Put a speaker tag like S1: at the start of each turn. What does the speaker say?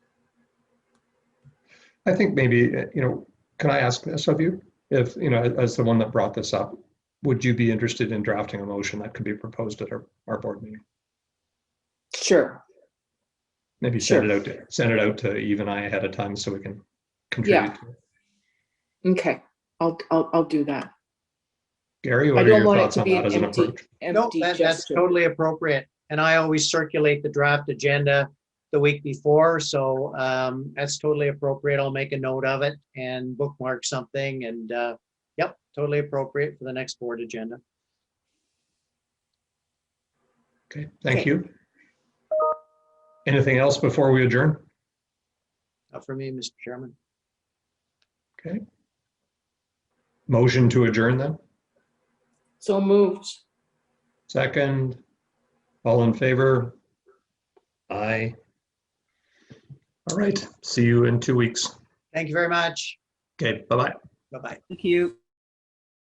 S1: I think maybe, uh, you know, can I ask this of you? If, you know, as the one that brought this up, would you be interested in drafting a motion that could be proposed at our, our board meeting?
S2: Sure.
S1: Maybe send it
S2: Sure.
S1: out, to send it out to Eve and I ahead of time so we can contribute. to it.
S2: Okay. I'll, I'll, I'll do that.
S1: Gary,
S2: I
S1: what are
S2: don't
S1: your
S2: want it
S1: thoughts
S2: to
S1: on
S2: be
S1: that
S2: an
S1: as an
S2: empty,
S1: approach?
S3: No,
S2: empty
S3: that- that's
S2: gesture.
S3: totally appropriate. And I always circulate the draft agenda the week before, so um, that's totally appropriate. I'll make a note of it and bookmark something and, uh, yep, totally appropriate for the next board agenda.
S1: Okay, thank
S2: Okay.
S1: you. Anything else before we adjourn?
S3: Not for me, Mr. Chairman.
S1: Okay. Motion to adjourn then?
S2: So moved.
S1: Second, all in favor? Aye. All right, see you in two weeks.
S3: Thank you very much.
S1: Okay, bye-bye.
S3: Bye-bye.
S4: Thank you.